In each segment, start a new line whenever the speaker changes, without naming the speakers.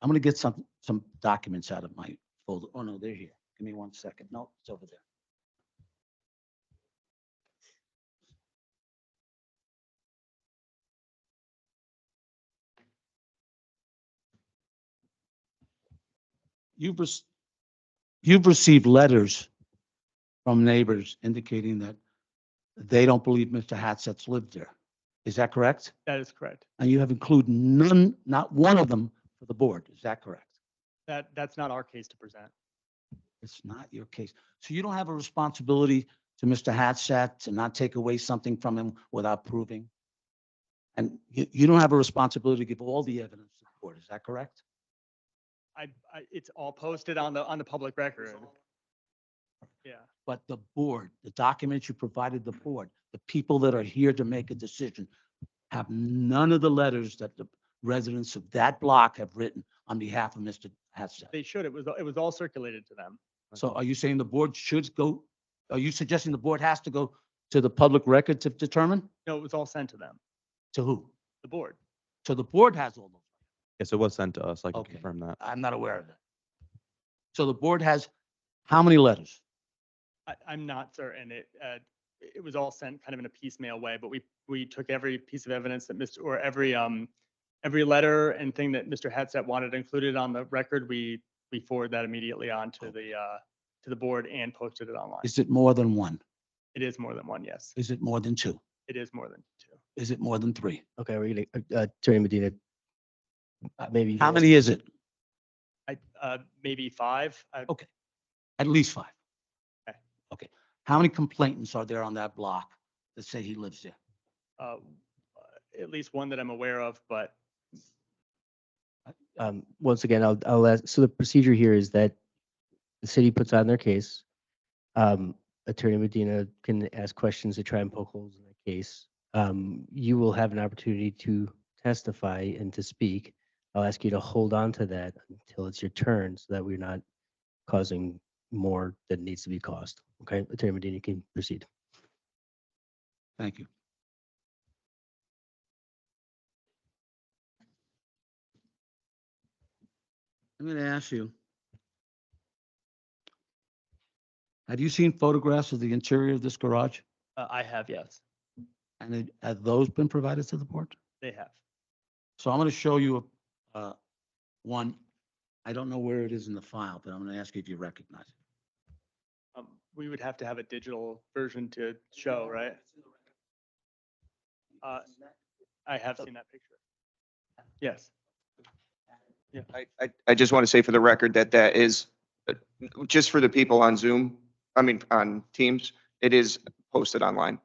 I'm gonna get some, some documents out of my folder. Oh, no, they're here. Give me one second. No, it's over there. You've, rec- you've received letters from neighbors indicating that they don't believe Mr. Hatstat's lived there. Is that correct?
That is correct.
And you have included none, not one of them for the board. Is that correct?
That, that's not our case to present.
It's not your case. So you don't have a responsibility to Mr. Hatstat to not take away something from him without proving? And you, you don't have a responsibility to give all the evidence to the board. Is that correct?
I, I, it's all posted on the, on the public record. Yeah.
But the board, the documents you provided the board, the people that are here to make a decision have none of the letters that the residents of that block have written on behalf of Mr. Hatstat.
They should. It was, it was all circulated to them.
So are you saying the board should go, are you suggesting the board has to go to the public record to determine?
No, it was all sent to them,
To who?
the board.
So the board has all those.
Yes, it was sent to us. I can
Okay.
confirm that.
I'm not aware of that. So the board has how many letters?
I, I'm not certain. It, uh, it was all sent kind of in a piecemeal way, but we, we took every piece of evidence that Mr., or every, um, every letter and thing that Mr. Hatstat wanted included on the record, we, we forward that immediately on to the, uh, to the board and posted it online.
Is it more than one?
It is more than one, yes.
Is it more than two?
It is more than two.
Is it more than three?
Okay, really, uh, Attorney Medina, uh, maybe. you
How
can answer.
many is it?
I, uh, maybe five. I-
At least five.
Okay.
Okay. How many complainants are there on that block that say he lives there?
uh, at least one that I'm aware of, but
Um, once again, I'll, I'll ask, so the procedure here is that the city puts on their case. Um, Attorney Medina can ask questions to try and poke holes in the case. Um, you will have an opportunity to testify and to speak. I'll ask you to hold on to that until it's your turn so that we're not causing more than needs to be caused. Okay, Attorney Medina you can proceed.
Thank you. I'm going to ask you. Have you seen photographs of the interior of this garage?
uh, I have, yes,
And it- have those been provided to the board?
they have.
So I'm going to show you a- uh, one. I don't know where it is in the file, but I'm going to ask you if you recognize it.
Um, We would have to have a digital version to show, right? Uh, I have seen that picture. Yes,
I, I, I just want to say for the record that that is, uh, just for the people on Zoom, I mean, on Teams, it is posted online.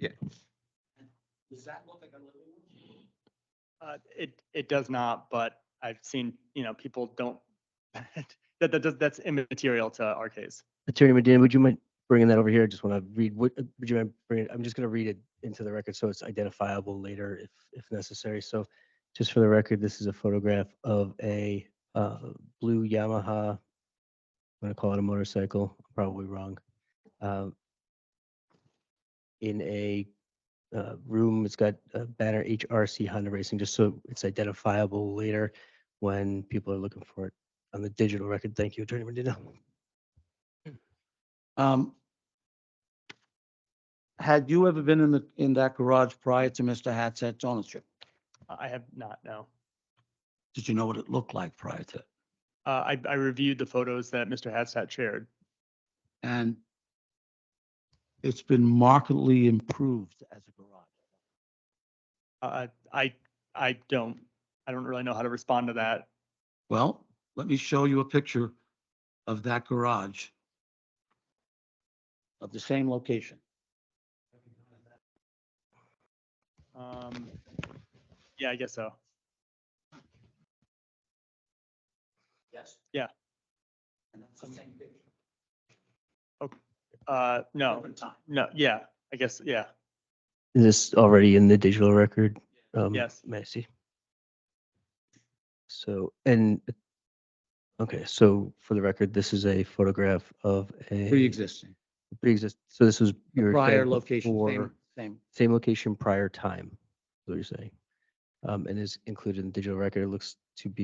Does that look like a living room?
uh, it, it does not, but I've seen, you know, people don't, that, that, does- that's immaterial to our case.
Attorney Medina, would you mind bringing that over here? I just want to read, what- uh, would you mind bringing, I'm just going to read it into the record so it's identifiable later if, if necessary. So just for the record, this is a photograph of a uh, blue Yamaha. I'm going to call it a motorcycle, probably wrong. uh, In a uh, room, it's got a banner HRC Honda Racing, just so it's identifiable later when people are looking for it on the digital record. Thank you, Attorney Medina.
Um, Had you ever been in the, in that garage prior to Mr. Hatstat's ownership?
Uh, I I have not, no.
Did you know what it looked like prior to?
Uh, I, I reviewed the photos that Mr. Hatstat shared.
And it's been markedly improved as a garage.
Uh, I, I don't, I don't really know how to respond to that.
Well, let me show you a picture of that garage of the same location.
Um, yeah, I guess so.
Yes.
Yeah.
And that's the same picture.
Uh, no,
Different time.
no, yeah, I guess, yeah.
Is this already in the digital record? Um,
Yes.
May I see? So, and, okay, so for the record, this is a photograph of a.
Pre-existing,
Pre-exist, so this was.
the
your
prior location, same,
Or
same.
same location, prior time, is what you're saying. Um, and is included in the digital record. It looks to be